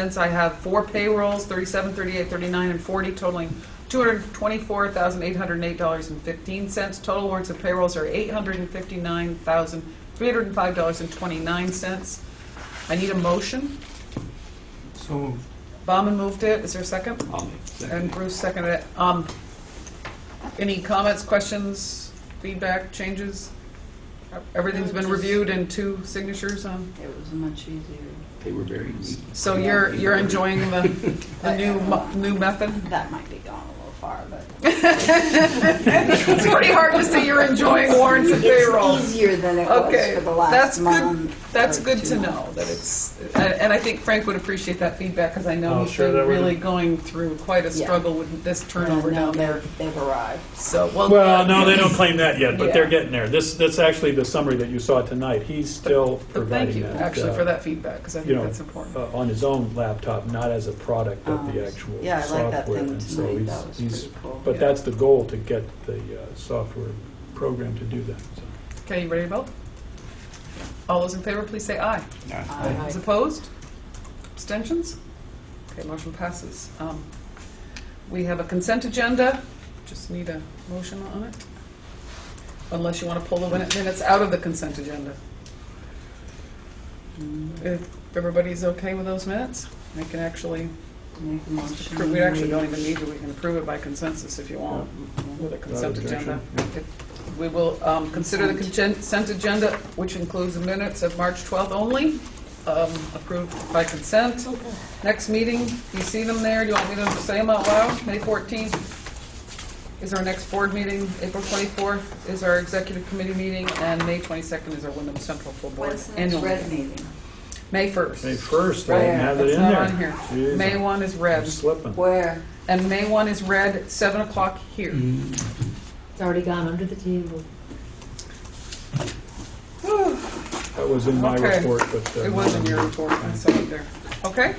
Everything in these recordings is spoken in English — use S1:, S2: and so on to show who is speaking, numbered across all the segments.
S1: Since I have four payrolls, 37, 38, 39, and 40 totaling $224,808.15. Total warrants and payrolls are $859,305.29. I need a motion.
S2: So moved.
S1: Bauman moved it. Is there a second?
S3: I'll make
S1: And
S3: second.
S1: Bruce seconded it. Um, Any comments, questions, feedback, changes? Everything's been reviewed and two signatures on?
S4: It was much easier.
S3: They were very neat.
S1: So you're, you're enjoying the, the new, mo- new method?
S4: That might be gone a little far, but
S1: It's pretty hard to say you're enjoying warrants and payroll.
S4: it's easier than it was
S1: Okay,
S4: for the last
S1: that's good,
S4: month.
S1: that's
S4: or
S1: good
S4: two
S1: to know,
S4: months.
S1: that it's, and and I think Frank would appreciate that feedback, because I know
S2: Oh,
S1: he's
S2: sure,
S1: been
S2: that would-
S1: really going through quite a
S4: Yeah.
S1: struggle with this turnover
S4: And now
S1: down there.
S4: they've, they've arrived.
S1: So,
S5: Well,
S1: well,
S5: no, they don't claim that yet, but they're
S1: Yeah.
S5: getting there. This, that's actually the summary that you saw tonight. He's still
S1: but thank
S5: providing
S1: you,
S5: that.
S1: actually,
S5: uh,
S1: for that feedback, because I
S5: you
S1: think
S5: know,
S1: that's important.
S5: uh, On his own laptop, not as a product of
S4: Um,
S5: the actual software.
S4: Yeah, I like that thing
S5: And so
S4: tonight,
S5: he's-
S4: that was
S5: he's-
S4: pretty cool.
S5: But that's the goal, to get the uh, software program to do that, so.
S1: Okay, you ready to vote? All those in favor, please say aye.
S4: Aye.
S1: Those opposed? Abstentions? Okay, motion passes. Um, We have a consent agenda, just need a motion on it, unless you want to pull the win- minutes out of the consent agenda. Mm, If everybody's okay with those minutes, we can actually,
S4: Make a motion.
S1: we actually don't even need to, we can approve it by consensus if you want, with a consent agenda.
S5: objection,
S1: If- We will um, consider the congen- consent agenda, which includes the minutes of March 12th only, um, approved by consent. Next meeting, you see them there, do you want me to say them out loud? May 14th is our next board meeting, April 24th is our executive committee meeting, and May 22nd is our Wyndham Central Full Board
S4: When's the next
S1: annual
S4: red
S1: meeting.
S4: meeting?
S1: May 1st.
S5: May first, I didn't have it
S1: That's
S5: in
S1: not
S5: there.
S1: on here.
S5: Jeez,
S1: May
S5: I'm
S1: 1 is red,
S5: Slipping.
S4: Where?
S1: and May 1 is red, 7 o'clock here.
S5: Mm-hmm.
S6: It's already gone under the table.
S5: That was in my
S1: Okay.
S5: report, but. uh,
S1: It was in your report, I saw it there. Okay?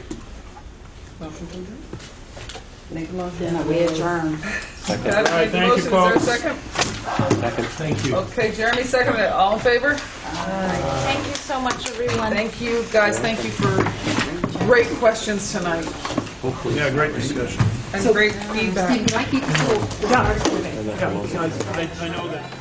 S1: Motion to adjourn.
S4: Make a motion that we adjourn.
S1: Deb
S5: All
S1: made the
S5: right, thank you,
S1: motion. Is
S5: folks.
S1: there a second?
S3: Second. Thank you.
S1: Okay, Jeremy seconded it. All in favor?
S7: Thank you so much, everyone.
S1: Thank you, guys, thank you for great questions tonight
S3: Hopefully.
S2: Yeah, great discussion.
S1: and great
S6: Steve,
S1: feedback.
S6: can I keep the full?
S5: I I know that.